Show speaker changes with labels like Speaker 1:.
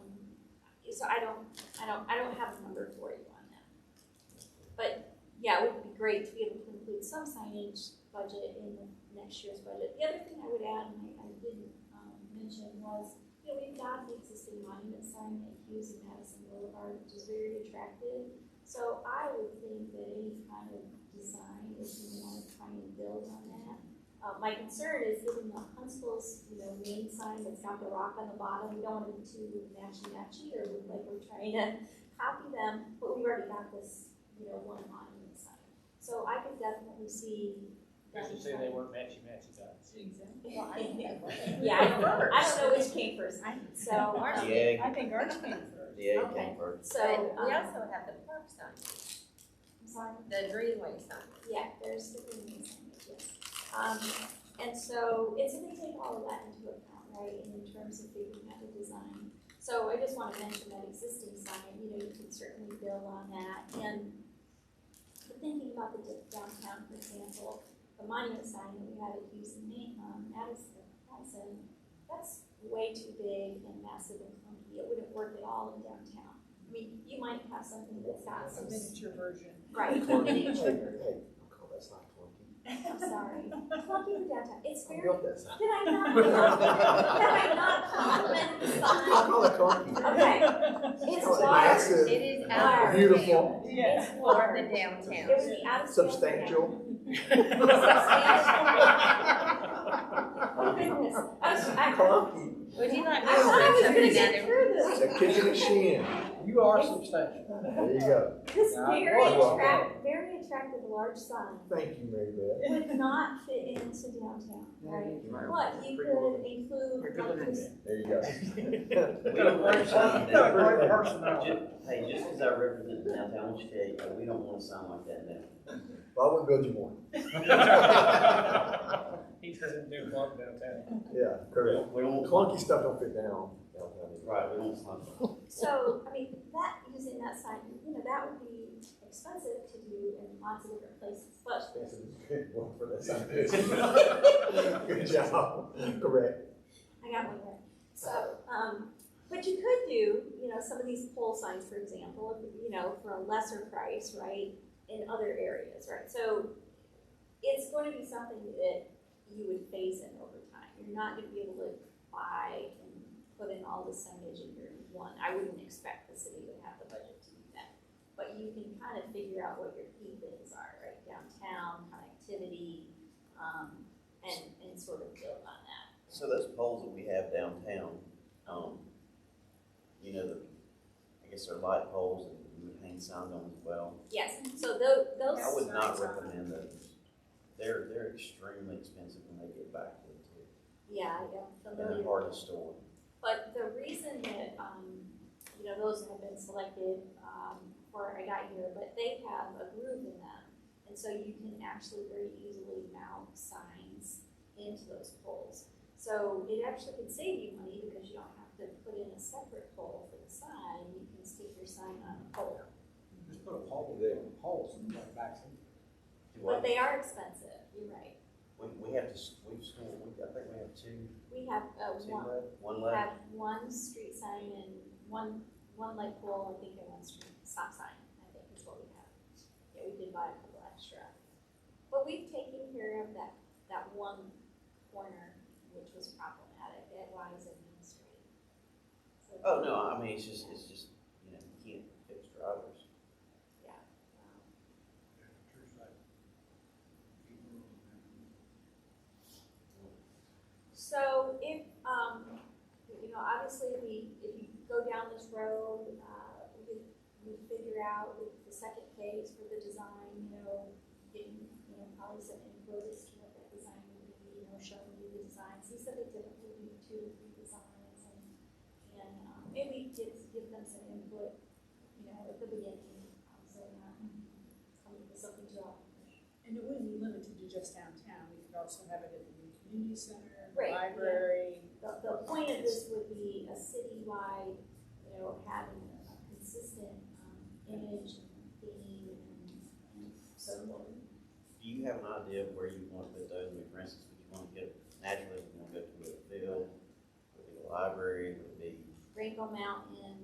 Speaker 1: so I don't, I don't, I don't have a number for you on that. But, yeah, it would be great to be able to include some signage budget in next year's budget. The other thing I would add, and I, I didn't, um, mention was, you know, we've got the existing monument sign at Hughes and Madison Boulevard, which is very attractive. So I would think that any kind of design, if you want to try and build on that, uh, my concern is given the Huntsville's, you know, main sign that's got the rock on the bottom, we don't want it to matchy matchy or look like we're trying to copy them, but we've already got this, you know, one monument sign. So I could definitely see.
Speaker 2: I should say they weren't matchy matchy dots.
Speaker 3: Well, I think I love it.
Speaker 1: Yeah, I don't, I don't know which came first, so.
Speaker 3: Ours
Speaker 1: um,
Speaker 4: The egg,
Speaker 3: I think ours came first.
Speaker 4: the egg
Speaker 1: Okay.
Speaker 4: came first.
Speaker 1: So,
Speaker 5: But we
Speaker 1: um,
Speaker 5: also have the park sign,
Speaker 1: I'm sorry.
Speaker 5: the Greenway sign.
Speaker 1: Yeah, there's the green signage, yes. Um, and so it's gonna take all of that into account, right, in terms of figuring out the design. So I just wanna mention that existing sign, you know, you can certainly build on that and but thinking about the dip- downtown, for example, the monument sign that we had at Hughes and Main, um, Madison, Madison, that's way too big and massive and clunky. It wouldn't work at all in downtown. I mean, you might have something that's got some, s-
Speaker 3: miniature version.
Speaker 1: right, miniature
Speaker 4: Hey, Nicole, that's not clunky.
Speaker 1: I'm sorry. Clunky in downtown. It's
Speaker 4: I
Speaker 1: very. Did
Speaker 4: built that sign.
Speaker 1: I not? Did I not compliment the
Speaker 4: I
Speaker 1: sign?
Speaker 4: call it clunky.
Speaker 1: Okay. It's
Speaker 4: Oh,
Speaker 1: large.
Speaker 4: massive,
Speaker 5: It is out of
Speaker 4: Beautiful,
Speaker 3: Yeah.
Speaker 1: It's
Speaker 5: For the
Speaker 1: large. It
Speaker 5: downtown.
Speaker 1: would be out of scale. for
Speaker 4: substantial.
Speaker 1: downtown. Oh, goodness. I was, I, I thought
Speaker 4: Clunky,
Speaker 5: Would you like me to
Speaker 1: I was
Speaker 5: put
Speaker 1: gonna
Speaker 5: something down
Speaker 1: get
Speaker 5: there?
Speaker 1: through
Speaker 4: it's
Speaker 1: this.
Speaker 4: a kitchen and shin.
Speaker 2: You are substantial.
Speaker 4: There you go.
Speaker 1: This
Speaker 2: Yeah,
Speaker 1: very
Speaker 4: I was.
Speaker 1: attract, very attractive large sign
Speaker 4: Thank you, Mary Beth.
Speaker 1: would not fit into downtown,
Speaker 4: Mm-hmm.
Speaker 1: right? But you could include like this
Speaker 4: There you go.
Speaker 6: Hey, just because I represent the downtown Wichita, we don't want to sound like that now.
Speaker 4: Well, I would build you one.
Speaker 2: He doesn't do one downtown.
Speaker 4: Yeah, correct.
Speaker 6: We don't
Speaker 4: Clunky stuff don't fit down downtown.
Speaker 6: Right, we don't sound like
Speaker 1: So, I mean, that, using that sign, you know, that would be expensive to do in lots of different places, but,
Speaker 4: That's a good one for that sign. Good job, correct.
Speaker 1: I got one there. So, um, but you could do, you know, some of these pole signs, for example, you know, for a lesser price, right, in other areas, right? So it's going to be something that you would phase in over time. You're not gonna be able to buy and put in all the signage in year one. I wouldn't expect the city would have the budget to do that. But you can kind of figure out what your key things are, right? Downtown, connectivity, um, and, and sort of build on that.
Speaker 6: So those poles that we have downtown, um, you know, the, I guess they're light poles and um, we would hang signs on them as well.
Speaker 1: Yes, so those, those.
Speaker 6: I would not
Speaker 1: signs are-
Speaker 6: recommend those. They're, they're extremely expensive when they get back to the,
Speaker 1: Yeah, yeah,
Speaker 6: and
Speaker 1: familiar.
Speaker 6: they're hard to store.
Speaker 1: But the reason that, um, you know, those have been selected, um, before I got here, but they have a groove in them. And so you can actually very easily mount signs into those poles. So it actually can save you money because you don't have to put in a separate pole for the sign, you can stick your sign on a pole.
Speaker 2: Just put a pole there, poles and like back
Speaker 6: Do
Speaker 1: But
Speaker 6: I,
Speaker 1: they are expensive, you're right.
Speaker 6: we, we have to, s- we've stored, we, I think we have two,
Speaker 1: We have, uh,
Speaker 6: two
Speaker 1: one,
Speaker 6: left, one
Speaker 1: We
Speaker 6: left.
Speaker 1: have one street sign and one, one light pole, I think, and one street stop sign, I think is what we have. Yeah, we did buy a couple extra. But we've taken care of that, that one corner, which was problematic, that lies in Main Street. So,
Speaker 6: Oh, no, I mean, it's just, it's just, you know, you can't fix drivers.
Speaker 1: um, So if, um, you know, obviously we, if you go down this road, uh, we could, we could figure out the, the second phase for the design, you know, getting, you know, probably some input as to what that design would be, you know, showing you the designs. He said they typically do two or three designs and, and, um, maybe give, give them some input, you know, at the beginning, um, so they're not coming with something to all.
Speaker 3: And it wouldn't be limited to just downtown, we could also have it at the new community center, the
Speaker 1: Right, yeah.
Speaker 3: library.
Speaker 1: The, the point of this would be a citywide, you know, having a consistent, um, image and theme and, and so forth.
Speaker 6: Do you have an idea of where you want to put those? I mean, for instance, would you want to get, naturally, you want to go to a field, would it be a library, would it be
Speaker 1: Rainbow Mountain,